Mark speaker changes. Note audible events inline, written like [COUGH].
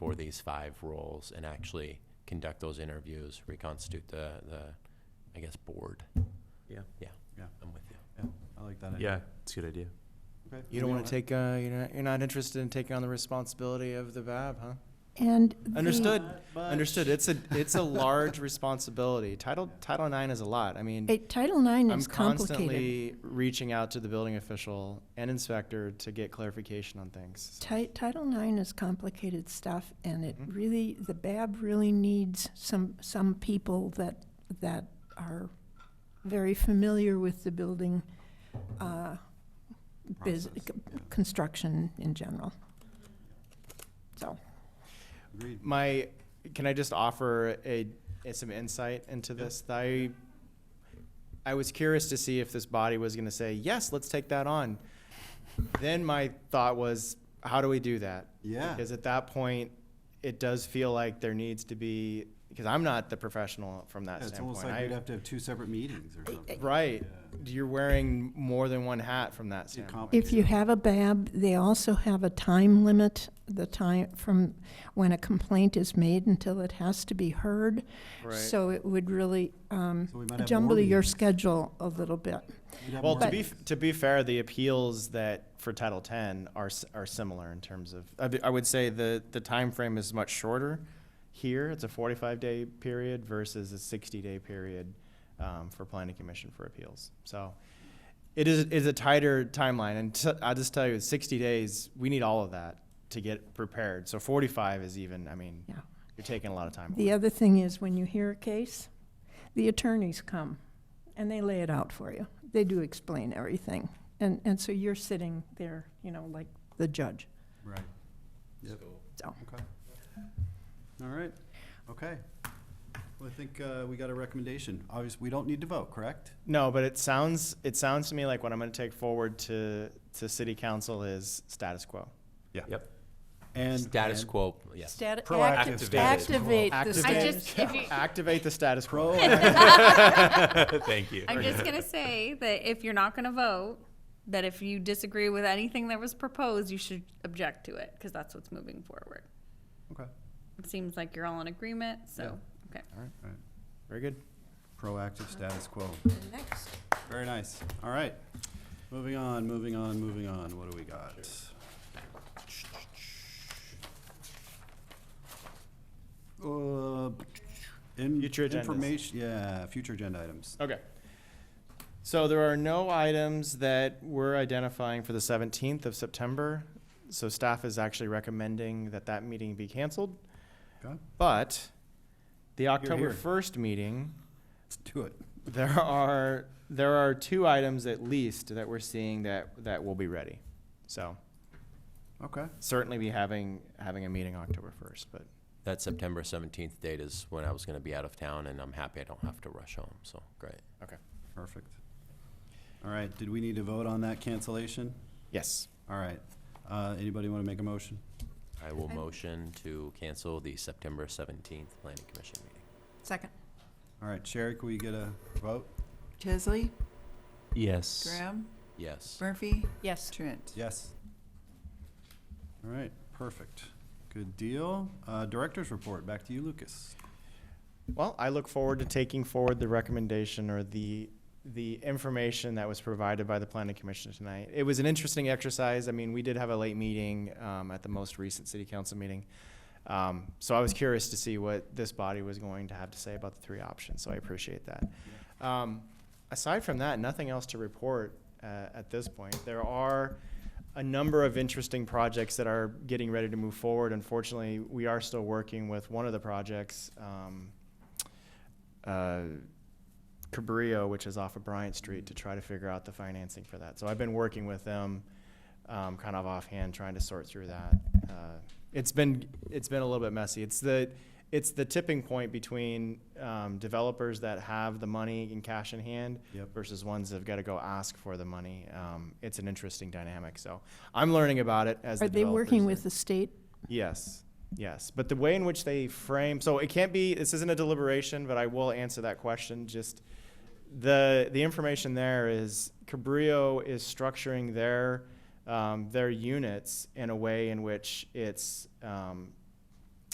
Speaker 1: for these five roles and actually conduct those interviews, reconstitute the, the, I guess, board.
Speaker 2: Yeah.
Speaker 1: Yeah.
Speaker 3: Yeah.
Speaker 1: I'm with you.
Speaker 3: I like that. idea.
Speaker 2: Yeah, it's a good idea.
Speaker 3: Okay.
Speaker 4: You don't
Speaker 3: We
Speaker 4: want
Speaker 3: all-
Speaker 4: to take, uh, you're not, you're not interested in taking on the responsibility of the VAB, huh?
Speaker 5: And
Speaker 4: Understood.
Speaker 5: the,
Speaker 3: Not much.
Speaker 4: Understood. It's a, it's a large responsibility. Title, Title IX is a lot. I mean,
Speaker 5: eh, Title IX
Speaker 4: I'm
Speaker 5: is complicated.
Speaker 4: constantly reaching out to the building official and inspector to get clarification on things. so-
Speaker 5: Ti- Title IX is complicated stuff, and it
Speaker 4: Mhm.
Speaker 5: really, the BAB really needs some, some people that, that are very familiar with the building, [LAUGHS] uh, biz,
Speaker 3: Process,
Speaker 5: c-
Speaker 3: yeah.
Speaker 5: construction in general. So,
Speaker 3: Agreed.
Speaker 4: My, can I just offer a, a- some insight into this? I, I was curious to see if this body was gonna say, yes, let's take that on. Then my thought was, how do we do that?
Speaker 3: Yeah.
Speaker 4: Because at that point, it does feel like there needs to be, because I'm not the professional from that
Speaker 3: Yeah, It's
Speaker 4: standpoint.
Speaker 3: almost like we'd
Speaker 4: I-
Speaker 3: have to have two separate meetings or something.
Speaker 4: Right,
Speaker 3: Yeah.
Speaker 4: you're wearing more than one hat from that
Speaker 3: Too
Speaker 4: standpoint.
Speaker 5: if you
Speaker 3: complicated.
Speaker 5: have a BAB, they also have a time limit, the time from when a complaint is made until it has to be heard.
Speaker 4: Right.
Speaker 5: So it would really um,
Speaker 3: So we might have more
Speaker 5: jumble your
Speaker 3: meetings.
Speaker 5: schedule a little bit.
Speaker 3: We'd have
Speaker 4: Well,
Speaker 3: more
Speaker 4: to be,
Speaker 3: meetings.
Speaker 4: f- to be fair, the appeals that for Title X are, s- are similar in terms of, I, be- I would say the, the timeframe is much shorter here. It's a forty-five day period versus a sixty day period, um, for planning commission for appeals. So it is, is a tighter timeline and t- I'll just tell you, sixty days, we need all of that to get prepared. So forty-five is even, I mean,
Speaker 5: Yeah.
Speaker 4: you're taking a lot of time.
Speaker 5: The other thing is, when you hear a case, the attorneys come and they lay it out for you. They do explain everything. And, and so you're sitting there, you know, like the judge.
Speaker 3: Right. Yep.
Speaker 5: So-
Speaker 3: Okay. All right, okay. Well, I think uh, we got a recommendation. Obviously, we don't need to vote, correct?
Speaker 4: No, but it sounds, it sounds to me like what I'm gonna take forward to, to city council is status quo.
Speaker 2: Yep.
Speaker 3: And.
Speaker 1: Status
Speaker 3: and
Speaker 1: quo, yes.
Speaker 5: Stati-
Speaker 3: Proactive
Speaker 5: acti-
Speaker 1: status quo.
Speaker 5: Activate
Speaker 4: Activate.
Speaker 5: the
Speaker 6: I
Speaker 4: Okay.
Speaker 6: just, if you,
Speaker 4: [LAUGHS] Activate the status
Speaker 5: [LAUGHS]
Speaker 4: quo.
Speaker 3: [LAUGHS]
Speaker 1: Thank you.
Speaker 6: I'm just gonna say that if you're not gonna vote, that if you disagree with anything that was proposed, you should object to it, because that's what's moving forward.
Speaker 3: Okay, all
Speaker 6: It seems like you're all in agreement, so, okay.
Speaker 3: right, all right.
Speaker 4: Very good.
Speaker 3: Proactive status quo.
Speaker 5: Next.
Speaker 3: Very nice. All right. Moving on, moving on, moving on. What do we got? Uh, in-
Speaker 4: Future agendas.
Speaker 3: Information, yeah, future agenda items.
Speaker 4: Okay. So there are no items that we're identifying for the 17th of September. So staff is actually recommending that that meeting be canceled.
Speaker 3: Okay,
Speaker 4: But the
Speaker 3: here.
Speaker 4: October 1st meeting,
Speaker 3: let's do it.
Speaker 4: there are, there are two items at least that we're seeing that, that will be ready. So
Speaker 3: Okay.
Speaker 4: certainly be having, having a meeting October 1st, but
Speaker 1: That September seventeenth date is when I was gonna be out of town, and I'm happy I don't have to rush home, so, great.
Speaker 3: Perfect. All right, did we need to vote on that cancellation?
Speaker 4: yes.
Speaker 3: All right, uh, anybody want to make a motion?
Speaker 1: I will motion to cancel the September seventeenth planning commission meeting.
Speaker 5: Second.
Speaker 3: All right, Sherry, can we get a vote?
Speaker 7: Chesley,
Speaker 2: Yes.
Speaker 7: Graham,
Speaker 1: Yes.
Speaker 7: Murphy,
Speaker 5: Yes.
Speaker 7: Trent.
Speaker 3: Yes. All right, perfect. Good deal. Uh, director's report, back to you, Lucas.
Speaker 4: Well, I look forward to taking forward the recommendation or the, the information that was provided by the planning commission tonight. It was an interesting exercise. I mean, we did have a late meeting, um, at the most recent city council meeting. Um, so I was curious to see what this body was going to have to say about the three options, so I appreciate that. Um, aside from that, nothing else to report, uh, at this point. There are a number of interesting projects that are getting ready to move forward. Unfortunately, we are still working with one of the projects, um, uh, Cabrillo, which is off of Bryant Street, to try to figure out the financing for that. So I've been working with them, um, kind of offhand, trying to sort through that. Uh, it's been it's been a little bit messy. It's the it's the tipping point between um, developers that have the money in cash in hand
Speaker 3: Yep.
Speaker 4: versus ones that've got to go ask for the money. Um, it's an interesting dynamic. So I'm learning about it as
Speaker 5: Are
Speaker 4: the
Speaker 5: they working
Speaker 4: developers
Speaker 5: with the state?
Speaker 4: Yes, yes. But the way in which they frame, so it can't be, this isn't a deliberation, but I will answer that question. Just the, the information there is Cabrillo is structuring their, um, their units in a way in which it's, um,